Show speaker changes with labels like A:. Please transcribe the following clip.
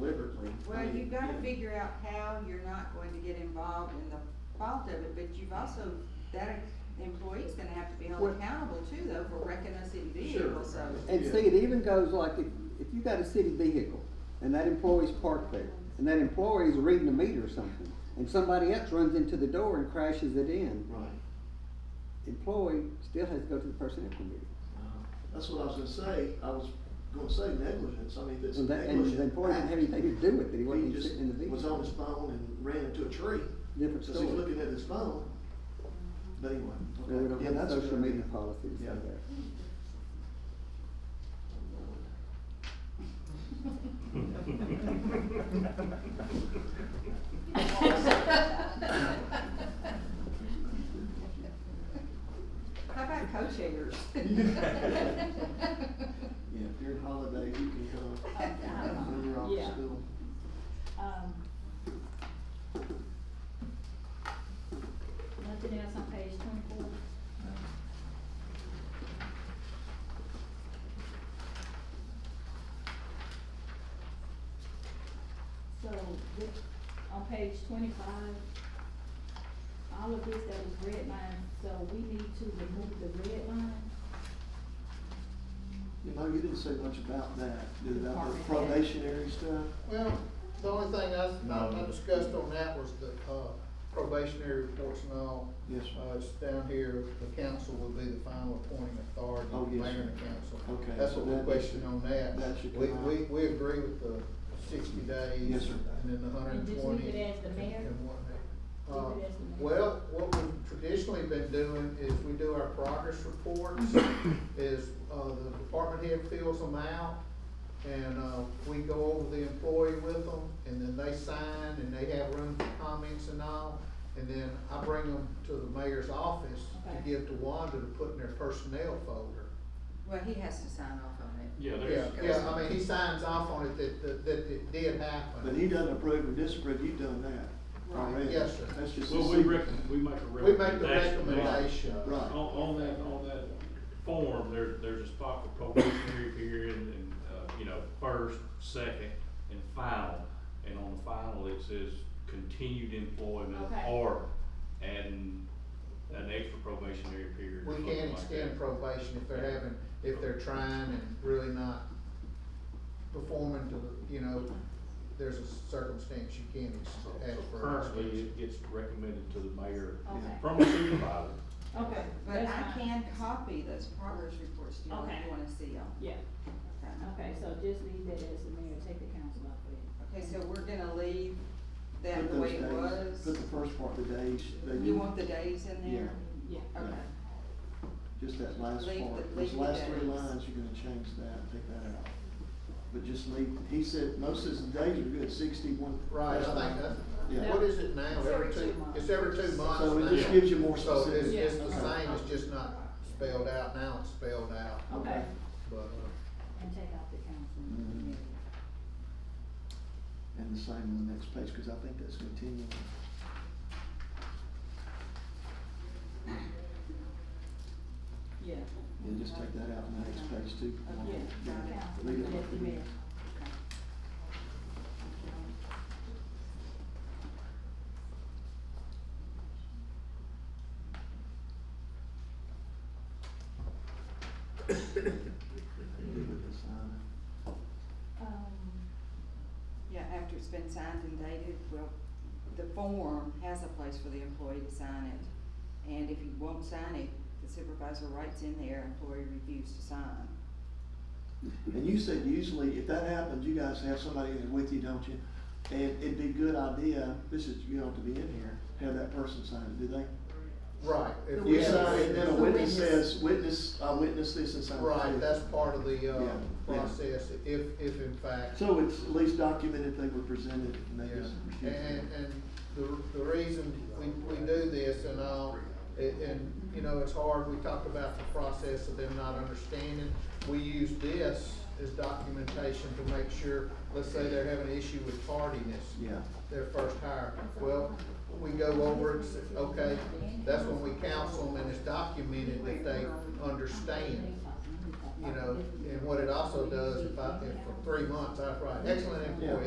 A: certainly. I
B: Well,
A: mean,
B: you've gotta
A: yeah.
B: figure out how you're not going to get involved in the fault of it, but you've also, that employee's gonna have to be held
C: Well-
B: accountable too, though, for wrecking a city
A: Sure.
B: vehicle, so.
C: And
A: Yeah.
C: see, it even goes like if, if you got a city vehicle and that employee's parked there and that employee's reading a meter or something and somebody else runs into the door and crashes it in,
A: Right.
C: employee still has to go to the personnel committee.
A: Uh, That's what I was gonna say, I was gonna say negligence, I mean, that's
C: And that, and the
A: negligent.
C: employee didn't have anything to do with it, he wasn't
A: He
C: even
A: just
C: sitting in the vehicle.
A: was on his phone and ran into a tree,
C: Different
A: because he was
C: story.
A: looking at his phone. But anyway, okay.
C: And we don't
A: Yeah,
C: have
A: that's a good
C: social media
A: idea.
C: policies
A: Yeah.
C: like that.
B: How about co-chairs?
A: Yeah, during holidays, you can come, when you're off
D: Yeah.
A: school.
D: Um, Nothing else on page twenty-four? So, this, on page twenty-five, all of this that was red line, so we need to remove the red line.
A: You know, you didn't say much about that, did it, about the
D: Department head.
A: probationary stuff?
E: Well, the only thing I, I I discussed on that was the uh, probationary reports and all.
A: Yes, sir.
E: Uh, it's down here, the council will be the final appointing authority,
A: Oh,
E: the
A: yes,
E: mayor
A: sir.
E: and the council.
A: Okay,
E: That's
A: so
E: what we
A: that-
E: questioned on that.
A: that should
E: We,
A: come
E: we,
A: out.
E: we agree with the sixty days.
A: Yes, sir.
E: And then the hundred
D: And
E: and
D: just
E: twenty.
D: leave it as the mayor?
E: and whatnot.
D: Leave
E: Uh,
D: it as the mayor?
E: Well, what we've traditionally been doing is we do our progress reports, is, uh, the department head fills them out, and, uh, we go over the employee with them, and then they sign, and they have room for comments and all, and then I bring them to the mayor's office
D: Okay.
E: to give to Wanda to put in their personnel folder.
B: Well, he has to sign off on it.
F: Yeah,
E: Yeah,
F: there's.
E: yeah, I mean, he signs off on it that, that, that it did happen.
A: But he doesn't approve or disapprove, you've done that
E: Right.
A: already.
E: Yes, sir.
A: That's just.
F: Well,
A: a
F: we
A: secret.
F: rec, we make a
E: We make
F: recommendation.
E: the recommendation.
A: Right.
F: On, on that, on that form, there, there's a spot for probationary period and, uh, you know, first, second, and final. And on the final, it says continued employment
D: Okay.
F: or adding an extra probationary period or
E: We
F: something
E: can
F: like that.
E: extend probation if they're having, if they're trying and really not performing to, the you know, there's a circumstance you can ex- ask
F: So
E: for. an
F: Currently,
E: extension.
F: it gets recommended to the mayor
D: Okay.
F: from a supervisor.
D: Okay,
B: But
D: that's
B: I
D: fine.
B: can copy those progress reports to you if
D: Okay.
B: you wanna see them.
D: Yeah,
B: Okay.
D: okay, so just leave that as the mayor, take the council off of it.
B: Okay, so we're gonna leave that
A: Put
B: the way it
A: those days-
B: was.
A: Put the first part, the days, they
B: You
A: didn't-
B: want the days in there?
D: Yeah.
B: Okay.
A: just that last
B: Leave the-
A: part, those
B: leave the
A: last three
B: days.
A: lines, you're gonna change that, take that out. But just leave, he said, most of his days are good, sixty-one.
E: Right, I
A: that's fine.
E: think that's,
A: Yeah.
E: what is it now,
B: It's
E: every
B: every two
E: two,
B: months.
E: it's every two months
A: So it just
E: now.
A: gives you more
E: So it's,
A: specifics.
D: Yeah.
E: it's the
A: Okay.
E: same, it's just not spelled out, now it's spelled out,
D: Okay,
E: but, uh,
D: and take out the council.
E: Mm-hmm.
A: Mhm. And the same on the next page, cause I think that's continuing.
D: Yeah.
A: Yeah, just take that out on the next page too.
D: Yeah, the council,
A: Leave it
D: that's the
A: like it
D: mayor.
A: is. Leave it the sign.
D: Um,
B: Yeah, after it's been signed and dated, well, the form has a place for the employee to sign it. And if he won't sign it, the supervisor writes in there, employee refused to sign.
A: And you said usually, if that happens, you guys have somebody in with you, don't you? And it'd be a good idea, this is, you don't have to be in here, have that person sign it, do they?
E: right. if
A: You
E: we have-
A: sign it, then a
B: The
A: witness
B: witness.
A: says, witness, I witnessed this and signed it.
E: Right, that's part of the,
A: Yeah,
E: uh,
A: yeah.
E: process, if, if in fact.
A: So it's at least documented they were presented and they just
E: Yeah,
A: refused.
E: and, and the, the reason we, we do this and all, and, and, you know, it's hard, we talked about the process of them not understanding. We use this as documentation to make sure, let's say they're having an issue with tardiness,
A: Yeah,
E: their first hire. Well, we go over it, say, okay, that's when we counsel them and it's documented that they understand you know, and what it also does, if I, if for three months, I write, excellent employee,